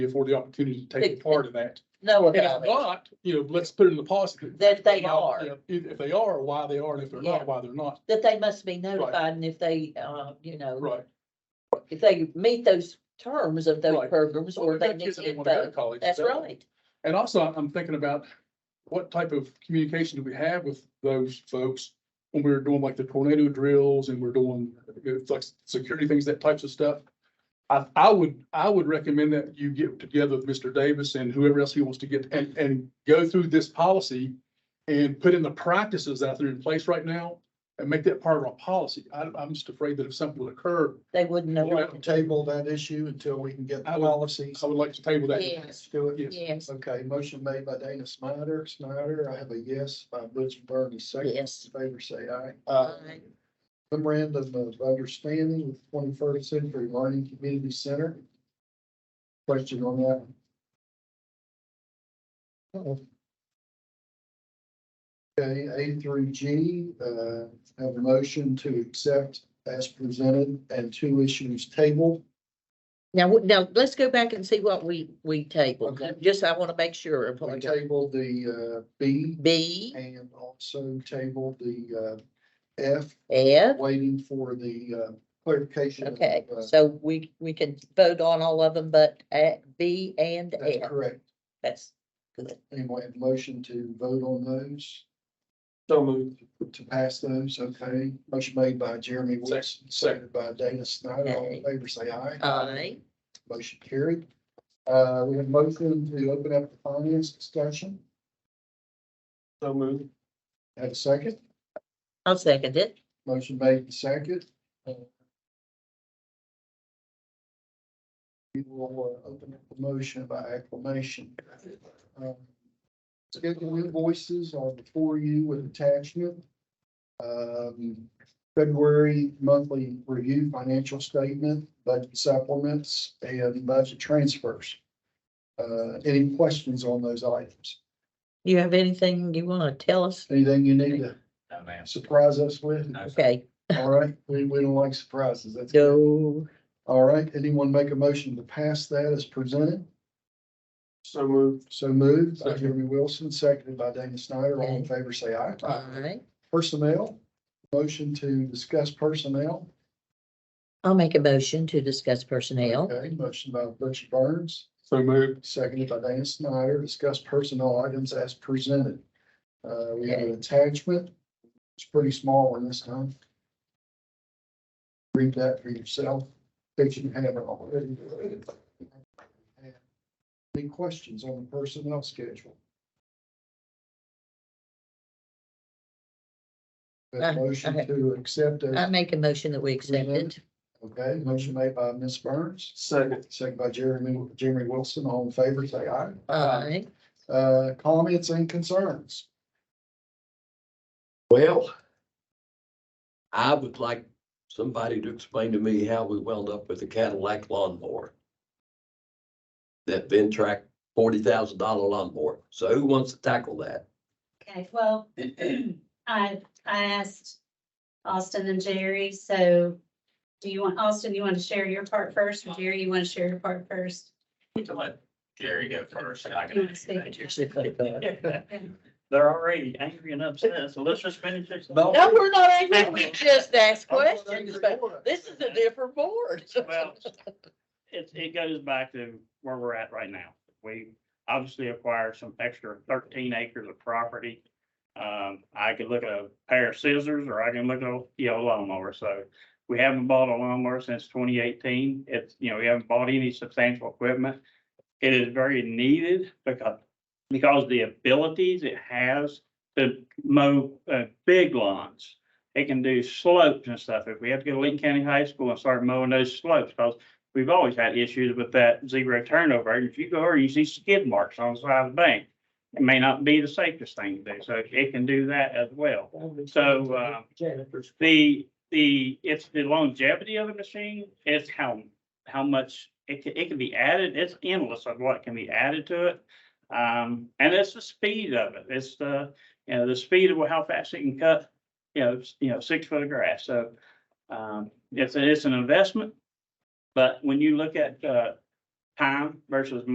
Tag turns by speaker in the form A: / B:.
A: afford the opportunity to take part in that.
B: know
A: And if
B: about it,
A: not, you know, let's put it in the policy.
B: that they
A: you
B: are,
A: know, If, if they are, why they are, and if they're
B: Yeah.
A: not, why they're not,
B: that they must be notified and if they, uh, you know,
A: right?
B: if they meet those terms of those
A: Right.
B: programs or they
A: Well,
B: need
A: kids that didn't wanna go to
B: info.
A: college,
B: That's
A: so-
B: right.
A: And also, I'm- I'm thinking about what type of communication do we have with those folks when we were doing like the tornado drills and we're doing you know, like security things, that types of stuff. I, I would, I would recommend that you get together with Mr. Davis and whoever else he wants to get and, and go through this policy and put in the practices that are in place right now and make that part of our policy. I, I'm just afraid that if something would occur,
B: They wouldn't know.
A: You
B: what-
A: have
C: table that issue until we can get
A: I would-
C: policies.
A: I would like to table that.
B: Yes,
C: Do it.
A: Yes.
B: yes,
C: Okay, motion made by Dana Snyder. Snyder, I have a yes by Butch Bernie, second.
B: yes.
C: In Favor say aye.
B: Aye.
C: Memorandum of understanding with twenty-first century learning community center. Question on that? Okay, A through G, uh, have a motion to accept as presented and two issues tabled.
B: Now, w- now, let's go back and see what we, we tabled.
C: Okay.
B: Just, I want to make sure of what
C: We
B: we got.
C: tabled the, uh, B
B: B,
C: And also table the uh F,
B: F,
C: waiting for the uh clarification. of,
B: okay,
C: uh,
B: so we, we can vote on all of them, but at B and
C: That's
B: F,
C: corect.
B: that's,
C: Anyway, a motion to vote on those,
A: So moved.
C: to pass those, okay? Motion made by Jeremy Wilson, seconded by Dana Snyder. All in favor, say aye.
B: aye.
C: Motion carried. Uh, we have motion to open up the finance discussion.
A: So moved.
C: Have a second?
B: I'll second it.
C: Motion made and second. We will uh, open up the motion by acclamation. Um, Schedule invoices are before you with attachment. Um, February monthly review, financial statement, budget supplements, and budget transfers. Uh, Any questions on those items?
B: You have anything you want to tell us?
C: Anything you need to
D: No, ma'am.
C: surprise us with?
B: Okay,
C: All right, we, we don't like surprises. That's good.
B: go,
C: All right, anyone make a motion to pass that as presented?
A: So moved.
C: So moved by
A: Second.
C: Jeremy Wilson, seconded by Dana Snyder. All in favor, say aye.
B: aye.
C: Personnel, motion to discuss personnel.
B: I'll make a motion to discuss personnel.
C: Okay, motion by Butch Burns,
A: So moved.
C: seconded by Dana Snyder. Discuss personnel items as presented. Uh, we have an attachment. It's pretty small one this time. Read that for yourself, if you haven't already. Any questions on the personnel schedule?
B: Uh,
C: A motion
B: okay. Uh,
C: to accept,
B: I
C: as-
B: make a motion that we accept it.
C: okay, motion made by Ms. Burns,
A: Second.
C: second by Jeremy, Jeremy Wilson, all in favor, say aye.
B: Aye.
C: Uh, comments and concerns?
D: Well, I would like somebody to explain to me how we wound up with a Cadillac lawnmower. That Ventrac forty thousand dollar lawnmower. So who wants to tackle that?
E: Okay, well, I, I asked Austin and Jerry, so do you want, Austin, you want to share your part first? or Jerry, you want to share your part first?
F: We can let Jerry go first. and I
E: You wanna speak?
F: can-
B: No,
F: They're already angry and upset, so let's just finish this.
D: No.
B: we're not angry. We just asked questions, but this is a different board.
F: Well, It, it goes back to where we're at right now. We obviously acquired some extra thirteen acres of property. Um, I could look at a pair of scissors or I can look at, a, you know, lawnmower. So we haven't bought a lawnmower since twenty eighteen. It's, you know, we haven't bought any substantial equipment. It is very needed because, because the abilities it has to mow, uh, big lawns. It can do slopes and stuff. If we have to go to Lincoln County High School and start mowing those slopes, because we've always had issues with that zero turnover. And if you go over, you see skid marks on the side of the bank. It may not be the safest thing to do, so it can do that as well. So, uh, The, the, it's the longevity of the machine, it's how, how much it can, it can be added, it's endless of what can be added to it. Um, and it's the speed of it, it's the, you know, the speed of how fast it can cut, you know, s- you know, six foot of grass, so. Um, it's, it's an investment, but when you look at, uh, time versus